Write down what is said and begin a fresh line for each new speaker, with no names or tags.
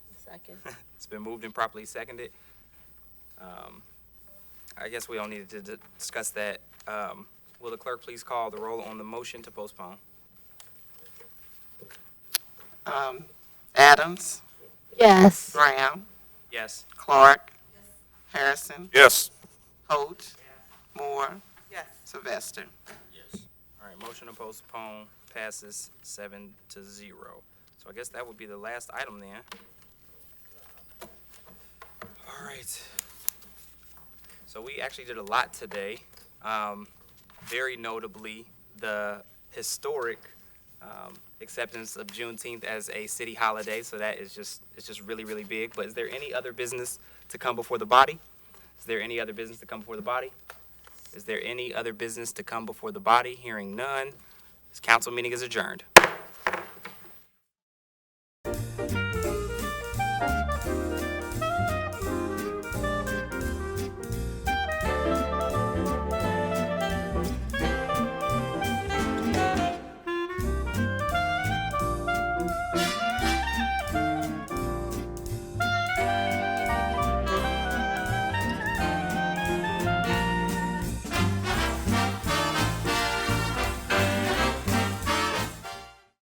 Second.
It's been moved and properly seconded. Um, I guess we don't need to di- discuss that. Um, Will the clerk please call the roll on the motion to postpone?
Um, Adams,
Yes.
Graham,
Yes.
Clark, Harrison,
Yes.
Holt, Moore, Sylvester.
All right, motion to postpone passes seven to zero. So I guess that would be the last item then. All right. So we actually did a lot today. Um, very notably, the historic um, acceptance of Juneteenth as a city holiday. So that is just it's just really really big. But is there any other business to come before the body? Is there any other business to come before the body? Is there any other business to come before the body? Hearing none, this council meeting is adjourned.